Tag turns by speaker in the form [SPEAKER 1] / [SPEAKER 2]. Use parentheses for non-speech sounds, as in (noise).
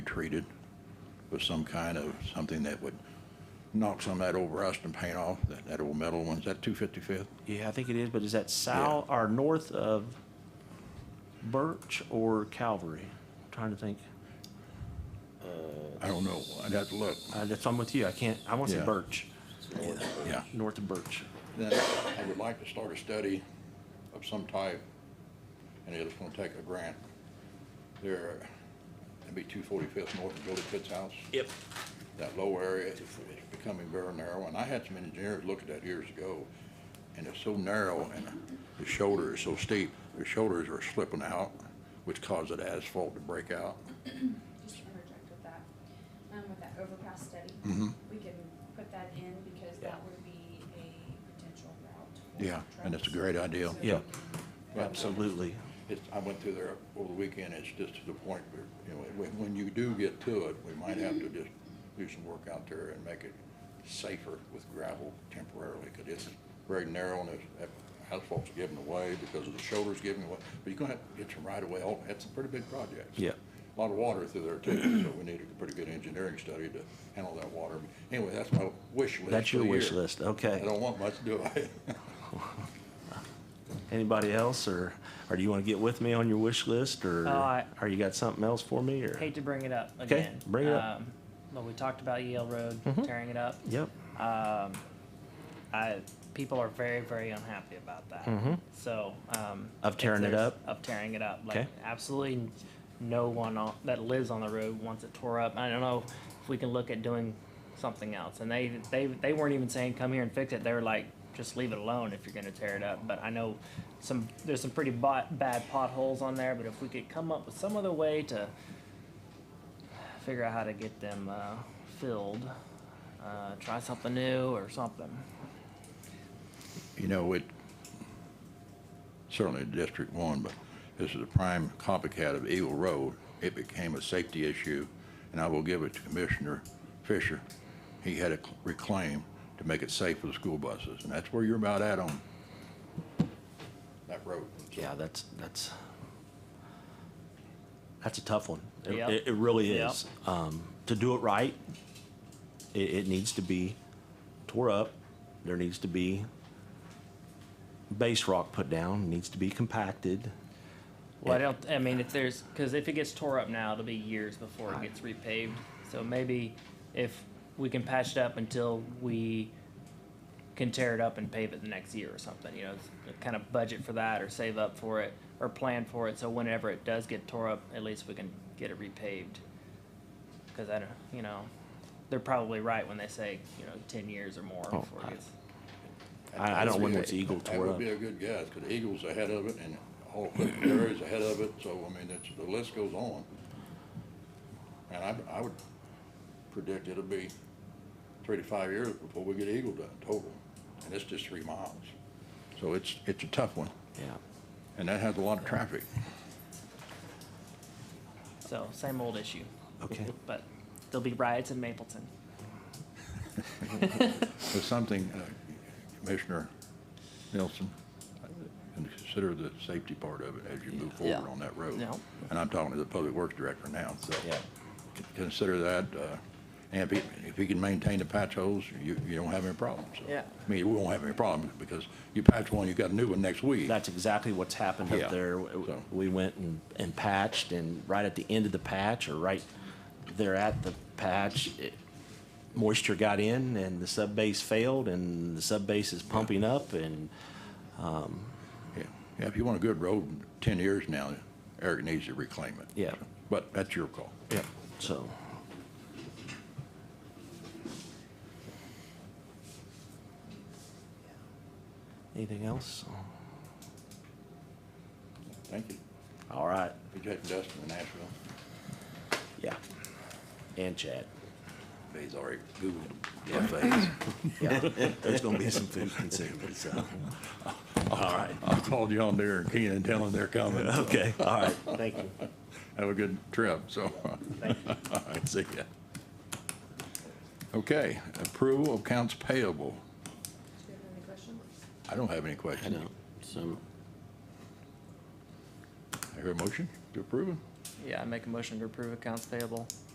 [SPEAKER 1] treated with some kind of, something that would knock some of that old rust and paint off, that, that old metal one. Is that two fifty-fifth?
[SPEAKER 2] Yeah, I think it is, but is that south or north of Birch or Calvary? I'm trying to think.
[SPEAKER 1] I don't know. I'd have to look.
[SPEAKER 2] Uh, that's, I'm with you. I can't, I want to say
[SPEAKER 1] Yeah.
[SPEAKER 2] Birch,
[SPEAKER 1] Yeah.
[SPEAKER 2] north of Birch.
[SPEAKER 1] Then I would like to start a study of some type, and it's gonna take a grant. There, it'd be two forty-fifth north of Billy Pitt's house.
[SPEAKER 2] Yep.
[SPEAKER 1] That low area is becoming very narrow, and I had some engineers look at that years ago, and it's so narrow, and the shoulder is so steep, the shoulders are slipping out, which causes the asphalt to break out.
[SPEAKER 3] just interject with that, um, with that overpass study.
[SPEAKER 1] Mhm.
[SPEAKER 3] We can put that in because
[SPEAKER 2] Yeah.
[SPEAKER 3] that would be a potential route. for
[SPEAKER 1] Yeah, and it's a
[SPEAKER 3] trucks.
[SPEAKER 1] great idea.
[SPEAKER 3] So
[SPEAKER 2] Yeah.
[SPEAKER 3] we can-
[SPEAKER 2] Absolutely.
[SPEAKER 1] It's, I went through there over the weekend, it's just to the point where, you know, when, when you do get to it, we might have to just do some work out there and make it safer with gravel temporarily, because it's very narrow and it's, that asphalt's giving away because of the shoulders giving away, but you're gonna have to get some right away, oh, that's a pretty big project.
[SPEAKER 2] Yeah.
[SPEAKER 1] A Lot of water through there too, so we need a pretty good engineering study to handle that water. Anyway, that's my wish list
[SPEAKER 2] That's
[SPEAKER 1] for
[SPEAKER 2] your
[SPEAKER 1] the
[SPEAKER 2] wish
[SPEAKER 1] year.
[SPEAKER 2] list,
[SPEAKER 1] I
[SPEAKER 2] okay.
[SPEAKER 1] don't want much, do I? (laughs)
[SPEAKER 2] Anybody else, or, or do you want to get with me on your wish list, or,
[SPEAKER 4] Oh, I-
[SPEAKER 2] or you got something else for me, or?
[SPEAKER 4] Hate to bring it up
[SPEAKER 2] Okay,
[SPEAKER 4] again.
[SPEAKER 2] bring it up. Mm-hmm.
[SPEAKER 4] Um, But we talked about Yale Road, tearing it up.
[SPEAKER 2] Yep,
[SPEAKER 4] Um, I, people are very, very unhappy about that.
[SPEAKER 2] Mhm.
[SPEAKER 4] So, um.
[SPEAKER 2] Of
[SPEAKER 4] if
[SPEAKER 2] tearing it
[SPEAKER 4] there's-
[SPEAKER 2] up?
[SPEAKER 4] Of tearing it up.
[SPEAKER 2] Okay.
[SPEAKER 4] Like, absolutely no one on- that lives on the road wants it tore up. I don't know if we can look at doing something else. And they, they, they weren't even saying, come here and fix it. They were like, just leave it alone if you're gonna tear it up. But I know some, there's some pretty bo- bad potholes on there, but if we could come up with some other way to figure out how to get them, uh, filled, uh, try something new or something.
[SPEAKER 1] You know, it, certainly District One, but this is a prime copycat of Eagle Road. It became a safety issue, and I will give it to Commissioner Fisher. He had it reclaimed to make it safe for the school buses, and that's where you're about at on that road.
[SPEAKER 2] yeah, that's, that's, that's a tough one. It,
[SPEAKER 4] Yep.
[SPEAKER 2] it- it really
[SPEAKER 4] Yep.
[SPEAKER 2] is. Um, to do it right, it, it needs to be tore up, there needs to be base rock put down, needs to be compacted.
[SPEAKER 4] Well, I don't. I mean, if there's because if it gets tore up now, it'll be years before it gets repaved. So maybe if we can patch it up until we can tear it up and pave it the next year or something. You know, s- kind of budget for that or save up for it or plan for it. So whenever it does get tore up, at least we can get it repaved. Because I don't. You know, they're probably right when they say you know ten years or more
[SPEAKER 2] Oh,
[SPEAKER 4] before
[SPEAKER 2] I-
[SPEAKER 4] it gets.
[SPEAKER 2] I, I don't want what's Eagle
[SPEAKER 1] That
[SPEAKER 2] tore
[SPEAKER 1] would
[SPEAKER 2] up.
[SPEAKER 1] be a good guess, because Eagle's ahead of it, and all Clifton Dairy's ahead of it, so, I mean, it's, the list goes on. And I, I would predict it'll be three to five years before we get Eagle done total, and it's just three miles. So it's, it's a tough one,
[SPEAKER 2] Yeah.
[SPEAKER 1] and that has a lot of traffic.
[SPEAKER 4] So same old issue.
[SPEAKER 2] Okay.
[SPEAKER 4] (laughs) But there'll be riots in Mapleton.
[SPEAKER 1] There's something, uh, Commissioner Nelson, and consider the safety part of it as you move
[SPEAKER 4] Yeah.
[SPEAKER 1] forward on that road.
[SPEAKER 4] Yeah.
[SPEAKER 1] And I'm talking to the Public Works Director now, so.
[SPEAKER 2] Yeah.
[SPEAKER 1] c- Consider that, uh, and if he, if he can maintain the patch holes, you, you don't have any problems. so.
[SPEAKER 4] Yeah.
[SPEAKER 1] I mean, we won't have any problems, because you patch one, you got a new one next week.
[SPEAKER 2] That's exactly what's happened
[SPEAKER 1] Yeah,
[SPEAKER 2] up there. W-
[SPEAKER 1] so.
[SPEAKER 2] We went and, and patched and right at the end of the patch or right there at the patch, it- moisture got in and the sub base failed and the sub base is pumping up and
[SPEAKER 1] Yeah, Yeah, if you want a good road in ten years now, Eric needs to reclaim it.
[SPEAKER 2] Yeah.
[SPEAKER 1] But that's your call.
[SPEAKER 2] yeah, so. Anything else?
[SPEAKER 1] Thank you.
[SPEAKER 2] All right,
[SPEAKER 1] Be taking Dustin to Nashville.
[SPEAKER 2] yeah. And Chad.
[SPEAKER 1] He's already Googled buffets.
[SPEAKER 2] Yeah, (laughs) there's gonna be some food consumed, so. (laughs) All right,
[SPEAKER 1] I called John Deere and Keenan, telling them they're coming. so
[SPEAKER 2] okay, all right, thank you.
[SPEAKER 1] Have a good trip, so. (laughs) All right, See ya. Okay, approval of accounts payable.
[SPEAKER 3] Do you have any questions?
[SPEAKER 1] I don't have any questions.
[SPEAKER 2] So,
[SPEAKER 1] I hear a motion to approve it?
[SPEAKER 4] Yeah, I make a motion to approve accounts payable.